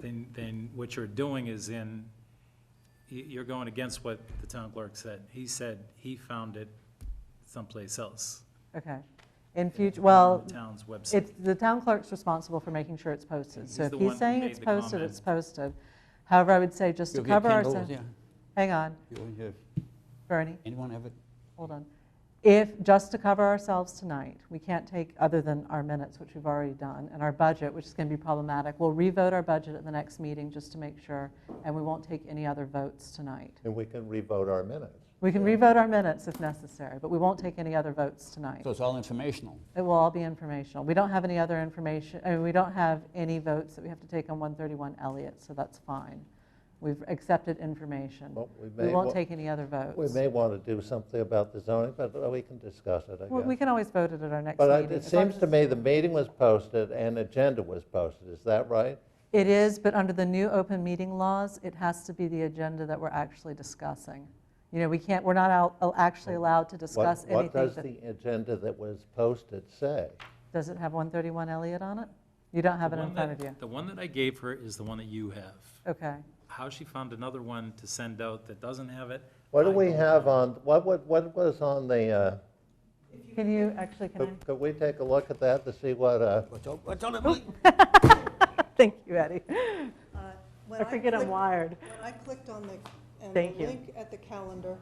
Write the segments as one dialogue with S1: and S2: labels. S1: then, then what you're doing is in, you, you're going against what the town clerk said. He said he found it someplace else.
S2: Okay. In future,
S1: on
S2: well,
S1: The town's website.
S2: it's, the town clerk's responsible for making sure it's posted.
S1: He's
S2: So if
S1: the one
S2: he's
S1: who
S2: saying
S1: made
S2: it's
S1: the
S2: posted,
S1: comment.
S2: it's posted. However, I would say just to
S3: You'll get
S2: cover
S3: Kindles,
S2: ourselves,
S3: yeah.
S2: hang on,
S3: You'll have-
S2: Bernie.
S3: Anyone have it?
S2: Hold on. If, just to cover ourselves tonight, we can't take other than our minutes, which we've already done, and our budget, which is going to be problematic, we'll revote our budget at the next meeting just to make sure, and we won't take any other votes tonight.
S4: And we can revote our minutes.
S2: We can revote our minutes if necessary, but we won't take any other votes tonight.
S3: So it's all informational.
S2: It will all be informational. We don't have any other information, I mean, we don't have any votes that we have to take on 131 Elliott, so that's fine. We've accepted information.
S4: Well, we
S2: We
S4: may
S2: won't
S4: wa-
S2: take any other
S4: We
S2: votes.
S4: may want to do something about the zoning, but uh, we can discuss it, I
S2: Well, We
S4: guess.
S2: can always vote it at our next meeting.
S4: But I- it
S2: as long
S4: seems
S2: as
S4: to
S2: it's-
S4: me the meeting was posted and agenda was posted, is that right?
S2: It is, but under the new open meeting laws, it has to be the agenda that we're actually discussing. You know, we can't, we're not al- actually allowed to
S4: What-
S2: discuss
S4: What
S2: anything
S4: does
S2: that,
S4: the agenda that was posted say?
S2: does it have 131 Elliott on it? You don't have it
S1: The
S2: in
S1: one
S2: front
S1: that-
S2: of you.
S1: The one that I gave her is the one that you have.
S2: Okay.
S1: How she found another one to send out that doesn't have it?
S4: What do
S1: I
S4: we
S1: don't
S4: have
S1: know.
S4: on, what, what, what was on the, uh,
S2: Can you, actually, can
S4: could- could we take a look at that to see what, uh,
S3: What's on- what's on the-
S2: I? Thank you, Eddie.
S5: Uh, when
S2: I forget I'm
S5: clicked-
S2: wired.
S5: When I clicked on the, and
S2: Thank
S5: the
S2: you.
S5: link at the calendar,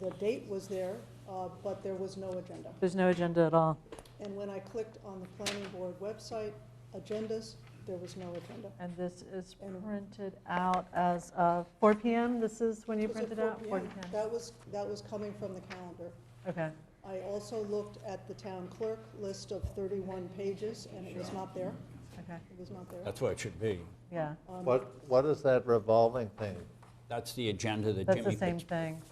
S5: the date was there, uh, but there was no agenda.
S2: There's no agenda at all.
S5: And when I clicked on the planning board website, agendas, there was no agenda.
S2: And this is
S5: And-
S2: printed out as of 4 PM? This is when you
S5: Was it
S2: printed out? 4
S5: 4 p.m.? That was, that was coming from the calendar.
S2: Okay.
S5: I also looked at the town clerk list of 31 pages, and it was not there.
S2: Okay,
S5: It was not there.
S3: That's where it should be.
S2: yeah.
S4: what, what is that revolving thing?
S3: That's the agenda that
S2: That's the
S3: Jimmy
S2: same
S3: puts.
S2: thing.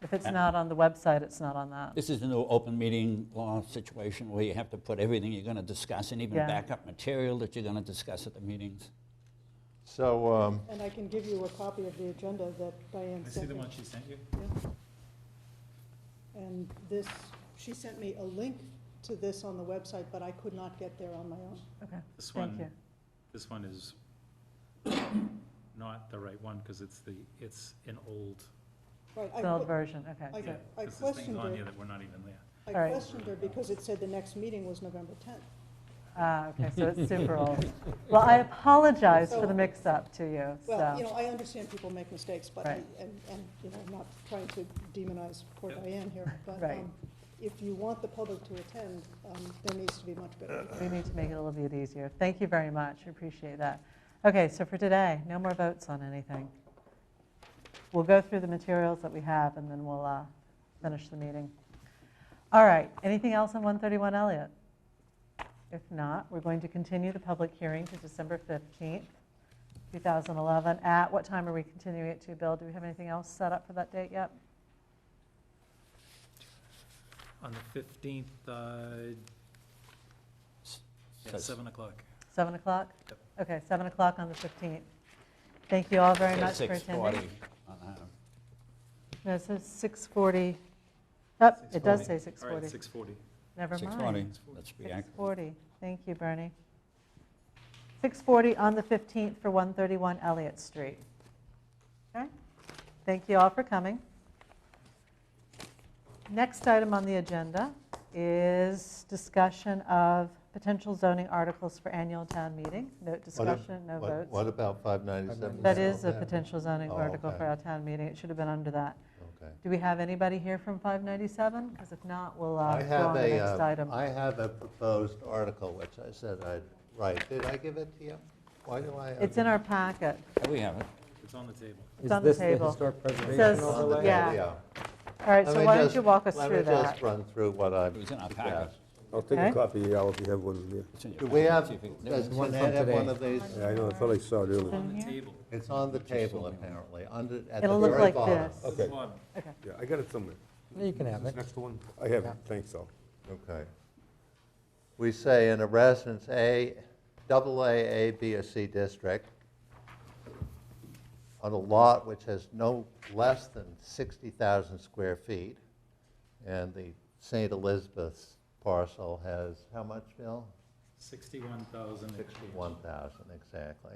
S2: If it's not on the website, it's not on that.
S3: This is a new open meeting law situation where you have to put everything you're going to discuss and even
S2: Yeah.
S3: backup material that you're going to discuss at the meetings.
S4: So, um,
S5: And I can give you a copy of the agenda that Diane
S1: I see
S5: sent
S1: the
S5: me.
S1: one she sent you?
S5: And this, she sent me a link to this on the website, but I could not get there on my own.
S2: Okay,
S1: This
S2: thank
S1: one,
S2: you.
S1: this one is not the right one because it's the, it's an old,
S5: Right, I
S2: It's an old
S5: que-
S2: version, okay.
S5: I-
S1: yeah. 'cause
S5: I
S1: this thing's
S5: questioned
S1: on
S5: it.
S1: here that we're not even there.
S5: I
S2: All right.
S5: questioned her because it said the next meeting was November 10th.
S2: Ah, okay, so it's super old. Well, I apologize for the
S5: So-
S2: mix-up to you,
S5: Well, you
S2: so.
S5: know, I understand people make mistakes, but, I-
S2: Right.
S5: and, and, you know, I'm not trying to demonize poor
S1: Yep.
S5: Diane here, but
S2: Right.
S5: um, if you want the public to attend, um, there needs to be much better.
S2: We need to make it a little bit easier. Thank you very much, I appreciate that. Okay, so for today, no more votes on anything. We'll go through the materials that we have, and then we'll uh, finish the meeting. All right, anything else on 131 Elliott? If not, we're going to continue the public hearing to December 15th, 2011. At what time are we continuing it to, Bill? Do we have anything else set up for that date yet?
S1: On the 15th, uh, yeah,
S3: Says-
S1: 7 o'clock.
S2: 7 o'clock?
S1: Yep.
S2: Okay, 7 o'clock on the 15th. Thank you all very
S3: says
S2: much for
S3: 6:40
S2: attending.
S3: on that.
S2: No, it says 6:40. Oh, it does say
S1: 6:40. All right,
S2: 6:40.
S1: 6:40.
S2: Never mind.
S3: 6:40, let's be accurate.
S2: 6:40, thank you, Bernie. 6:40 on the 15th for 131 Elliott Street. Okay, thank you all for coming. Next item on the agenda is discussion of potential zoning articles for annual town meeting. No
S4: what ab-
S2: discussion, no
S4: what-
S2: votes.
S4: What about 597?
S2: That is a potential zoning
S4: Oh,
S2: article
S4: okay.
S2: for our town meeting. It should have been under that.
S4: Okay.
S2: Do we have anybody here from 597? Because if not, we'll uh,
S4: I
S2: go on
S4: have
S2: to the
S4: a,
S2: next
S4: uh,
S2: item.
S4: I have a proposed article, which I said I'd write. Did I give it to you? Why do I? have
S2: It's in
S4: it?
S2: our packet.
S3: Oh, We have it.
S1: It's on the table.
S2: It's on the table. It says,
S4: On the table,
S2: yeah. All right,
S4: Let
S2: so
S4: me
S2: why don't
S4: just-
S2: you walk us through
S4: Let me
S2: that?
S4: just run through what I'm.
S3: It was in our packet.
S6: I'll take
S2: Okay.
S6: a copy, yeah, if you have one here.
S3: It's in your
S4: Do we
S3: packet.
S4: have,
S3: See if it- there
S4: does
S3: it is.
S4: Lynette have one of these?
S6: Yeah, I know, I thought I saw it earlier.
S1: On the
S2: here?
S1: table.
S4: It's on the table apparently, under, at the
S2: It'll look
S4: very
S2: like
S4: bottom.
S2: this.
S6: Okay,
S1: Bob,
S6: yeah, I got it somewhere.
S7: You can have
S6: This
S7: it.
S6: next one? I have it, thanks, Al.
S4: Okay. We say in a residence A, double A, A, B, or C district, on a lot which has no less than 60,000 square feet, and the St. Elizabeth's parcel has, how much, Bill?
S1: 61,000.
S4: 61,000, exactly.